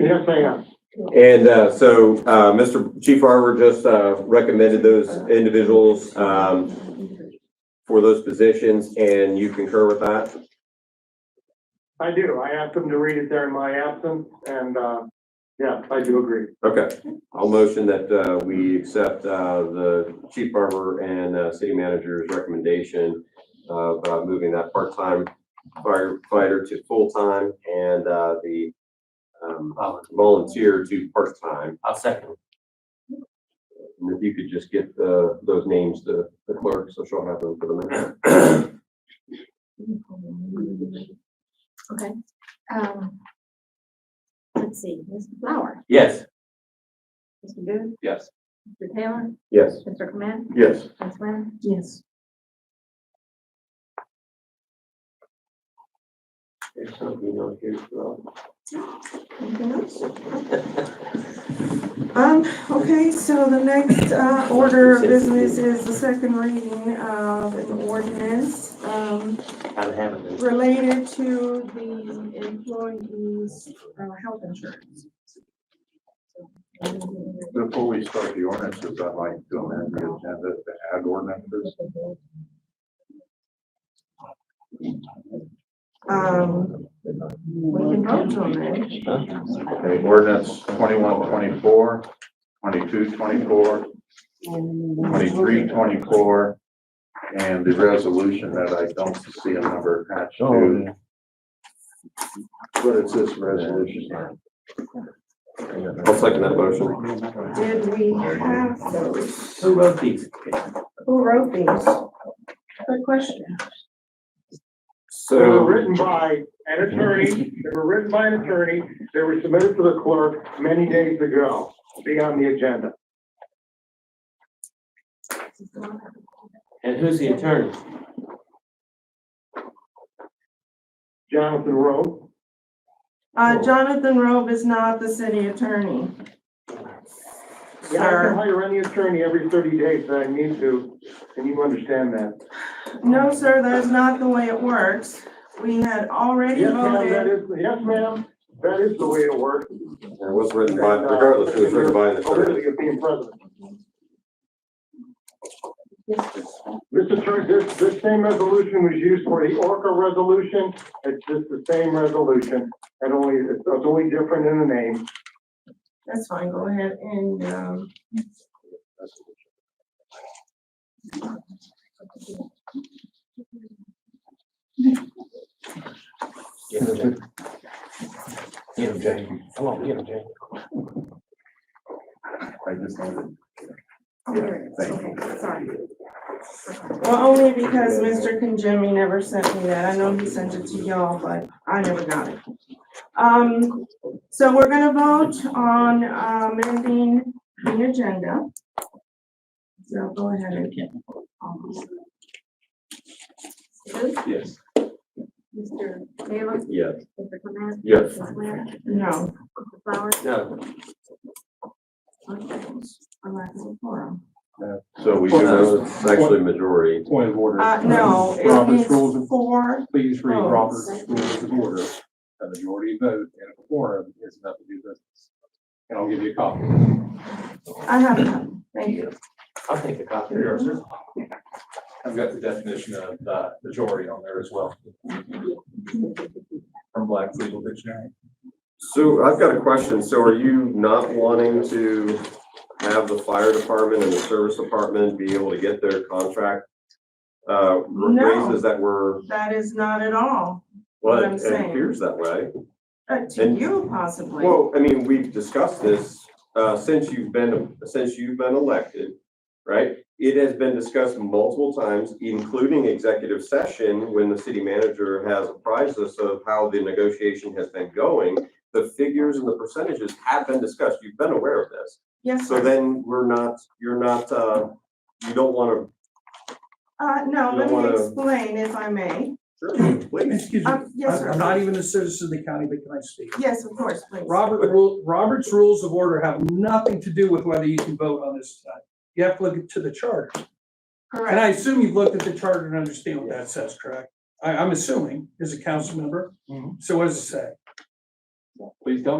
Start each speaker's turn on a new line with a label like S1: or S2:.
S1: Yes, I am.
S2: And uh, so uh, Mr. Chief Barber just uh, recommended those individuals um, for those positions, and you concur with that?
S1: I do. I asked them to read it there in my absence and, uh, yeah, I do agree.
S2: Okay, I'll motion that uh, we accept uh, the Chief Barber and uh, City Manager's recommendation of uh, moving that part-time firefighter to full-time and uh, the um, volunteer to part-time.
S3: I'll second.
S2: And if you could just get the, those names to the clerk, so she'll have them for the minute.
S4: Okay, um. Let's see, Mr. Flower,
S3: Yes.
S4: Mr. Booth,
S3: Yes.
S4: Mr. Taylor,
S2: Yes.
S4: Mr. Command,
S2: Yes.
S4: Ms. Lynn? Yes.
S2: There's something on here as well.
S4: Anything else?
S5: Um, okay, so the next, uh, order of business is the second reading of an ordinance, um,
S3: I'm having this.
S5: related to the employees' uh, health insurance.
S6: Before we start the ordinances, I'd like to amend the agenda to add ordinances.
S5: Um, we can vote on that.
S6: Okay, ordinance twenty-one twenty-four, twenty-two twenty-four, twenty-three twenty-four, and the resolution that I don't see a number attached to. What is this resolution?
S2: I'll second that motion.
S5: Did we have those?
S3: Who wrote these?
S5: Who wrote these? Good question.
S1: They were
S2: So,
S1: written by an attorney, they were written by an attorney, they were submitted to the clerk many days ago, be on the agenda.
S3: And who's the attorney?
S1: Jonathan Rowe,
S5: Uh, Jonathan Robe is not the city attorney.
S1: yeah, I can
S5: Sir,
S1: hire any attorney every thirty days that I need to, and you understand that.
S5: no, sir, that is not the way it works. We had already
S1: Yes, ma'am, that
S5: voted.
S1: is, yes, ma'am, that is the way it works.
S2: it was written by, regardless, it was written by an attorney.
S1: Hopefully Oh, you're being president. This attorney, this, this same resolution was used for the Orca resolution. It's just the same resolution, and only, it's it's only different in the name.
S5: That's fine, go ahead and, um,
S3: Get him, Jay. Get him, Jay. Come on, get him, Jay.
S6: I just don't. Thank you.
S5: sorry. Well, only because Mr. Conjemmy never sent me that. I know he sent it to y'all, but I never got it. Um, so we're gonna vote on, um, amending the agenda. So go ahead and get.
S4: Mr. Booth,
S2: Yes.
S4: Mr. Taylor,
S2: Yes.
S4: Mr. Command,
S2: Yes.
S4: Ms. Lynn,
S5: No.
S4: Mr. Flower,
S3: No,
S5: Okay, Unless it's a forum.
S6: So we do,
S2: No, it's actually a majority.
S7: Point of order.
S5: Uh, no, it
S7: Robert's rules
S5: means
S7: of,
S5: four,
S7: please read
S5: oh.
S7: Robert's rules of order. A majority vote and a quorum is enough to do business. And I'll give you a copy.
S5: I have none, thank you.
S3: I'll take a copy.
S8: I've got the definition of uh, majority on there as well. From Black's Legal Dictionary.
S2: So I've got a question. So are you not wanting to have the fire department and the service department be able to get their contract? Uh,
S5: No.
S2: raises that were,
S5: That is not at all,
S2: well,
S5: What I'm
S2: it
S5: saying.
S2: appears that way.
S5: uh, to
S2: And-
S5: you possibly.
S2: Well, I mean, we've discussed this, uh, since you've been, since you've been elected, right? It has been discussed multiple times, including executive session, when the city manager has apprised us of how the negotiation has been going. The figures and the percentages have been discussed. You've been aware of this.
S5: Yes,
S2: So
S5: sir.
S2: then we're not, you're not, uh, you don't wanna,
S5: Uh, no,
S2: you don't
S5: let me
S2: wanna-
S5: explain if I may.
S2: sure, please.
S9: Excuse me,
S5: Um, yes,
S9: I'm I'm
S5: sir.
S9: not even a citizen of the county, but can I speak?
S5: Yes, of course, please.
S9: Robert, rule- Robert's Rules of Order have nothing to do with whether you can vote on this tonight. You have to look to the charter. And I
S5: Correct,
S9: assume you've looked at the charter and understand what that says, correct? I, I'm assuming, as a council member. So what does it say?
S7: Please don't